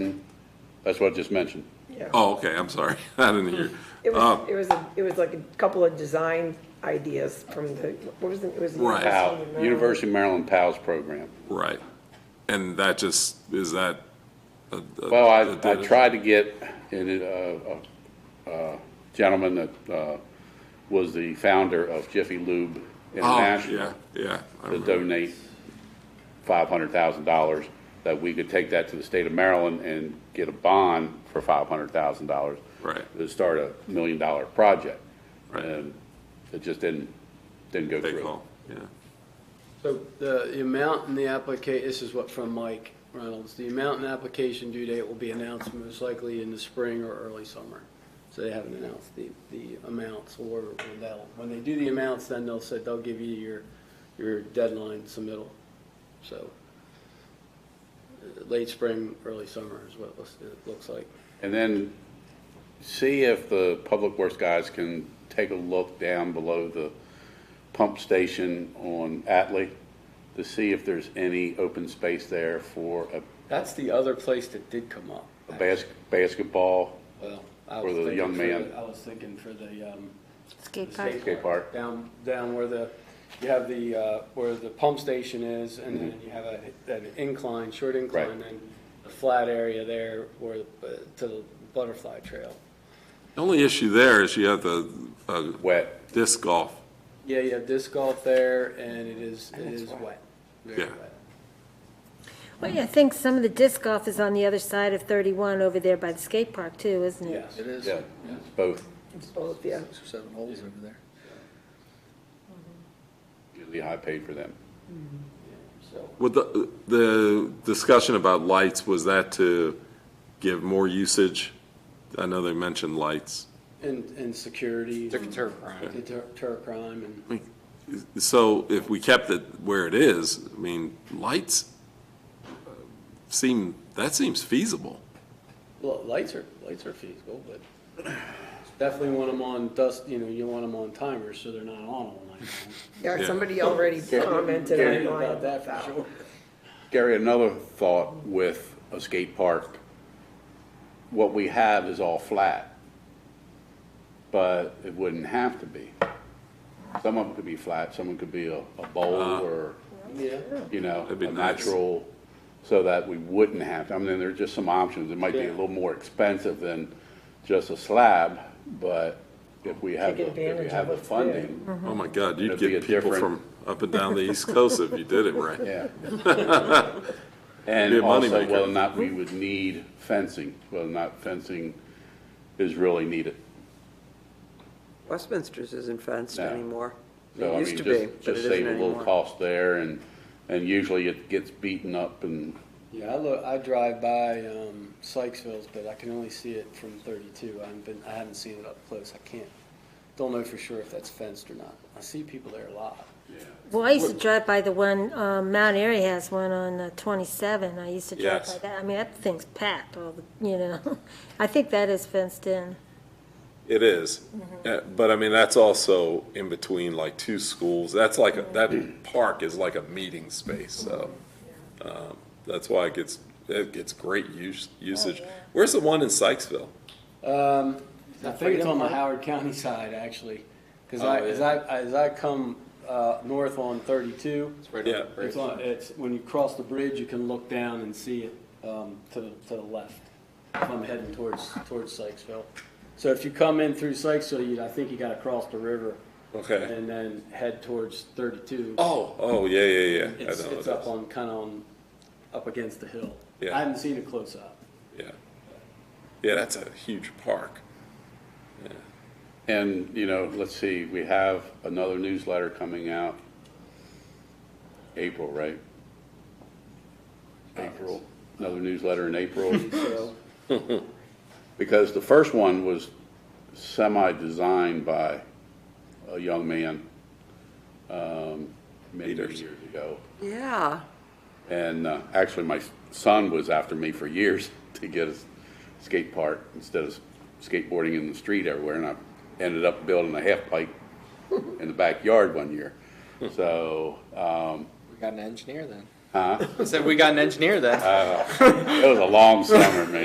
That's what I just mentioned. Yeah. Oh, okay, I'm sorry. I didn't hear. It Um, was, it was, a- it was like a couple of design ideas from the, what was it, it was. the Right. PAL, University of Maryland. University of Maryland PALS program. Right. And that just, is that? a- a- Well, a- I, I tried to get, and, uh, a gentleman that, uh, was the founder of Jiffy Lube Oh, International yeah, yeah. I to remember. donate five hundred thousand dollars, that we could take that to the state of Maryland and get a bond for five hundred thousand dollars. Right. To start a million dollar project. Right. And it just didn't, didn't go They through. call, yeah. So the, the amount in the applica, this is what from Mike Reynolds, the amount in the application due date will be announced most likely in the spring or early summer. So they haven't announced the, the amounts or when they'll, when they do the amounts, then they'll say, they'll give you your, your deadline submittal. So uh, late spring, early summer is what it looks, it looks like. And then see if the Public Works guys can take a look down below the pump station on Atlee to see if there's any open space there for a That's the other place that did come up. a bas- basketball Well, I For was the thinking young for man. the- I was thinking for the, um, Skate The park. Skate park. Down, down where the, you have the, uh, where the pump station is, and then you have a, an incline, short incline, Mm-hmm. Right. and a flat area there where, uh, to the butterfly trail. The only issue there is you have the uh, wet. disc golf. Yeah, you have disc golf there, and it is, it is wet, very Yeah. wet. Well, yeah, I think some of the disc golf is on the other side of 31 over there by the skate park too, isn't it? Yes. It is. Yeah, it's both It's both, yeah. Six or seven holes over there. usually high paid for them. So, With the, the discussion about lights, was that to give more usage? I know they mentioned lights. and, and security. Deter crime. Deter crime, and I mean, So if we kept it where it is, I mean, lights uh, seem, that seems feasible. Well, lights are, lights are feasible, but definitely want them on dust, you know, you want them on timers, so they're not on all night long. Yeah, Yeah. somebody already commented Tell you on about mine. that for sure. Gary, another thought with a skate park, what we have is all flat, but it wouldn't have to be. Some of them could be flat, some of them could be a, a bowl or, Yeah, you know, That'd Uh-huh. be a nice. natural, so that we wouldn't have to. I mean, there are just some options. It might be a Yeah. little more expensive than just a slab, but if we have, Take the- if we advantage have the of funding, Oh my God, It'd you'd be get a people different- from up and down the East Coast if you did it right. yeah. Be And a also moneymaker. whether or not we would need fencing, whether or not fencing is really needed. Westminster's isn't fenced No. anymore. So, It I used mean, to just- be, but it Just isn't save a little anymore. cost there and, and usually it gets beaten up and, yeah, I look, I drive by, um, Sykesville's, but I can only see it from thirty-two, I haven't been, I haven't seen it up close, I can't, don't know for sure if that's fenced or not, I see people there a lot. Well, I used to drive by the one, um, Mount Airy has one on uh, 27. I used to drive Yes. by that. I mean, that thing's packed all the, you know. I think that is fenced in. It is. Mm-hmm. Uh, But I mean, that's also in between like two schools. That's like, a- Mm-hmm. that park is like a meeting space, so. um, That's why it gets, it gets great use, Oh, usage. Where's the one in Sykesville? Um, I think it's on the Howard County side, actually, because I, Oh, as I, yeah. as I come, uh, north on thirty-two, Yeah, it's on, it's, when you cross the bridge, you can look down and see it, um, to, the to the left, if I'm heading towards, towards Sykesville. So if you come in through Sykesville, you, I think you gotta cross the river okay. and then head towards thirty-two. Oh, oh, yeah, yeah, yeah. I know It's, what it's it up is. on, kinda on, up against the hill. Yeah. I haven't seen it close up. Yeah. Yeah, that's a huge park. and, you know, let's see, we have another newsletter coming out April, right? April, another newsletter in April. So, Because the first one was semi-designed by a young man, um, many Peters. years ago. Yeah, And uh, actually, my son was after me for years to get a skate park instead of skateboarding in the street everywhere. And I ended up building a half pipe in the backyard one year. So um, We got an engineer then. Huh? Said we got an engineer then. it was a long summer, man.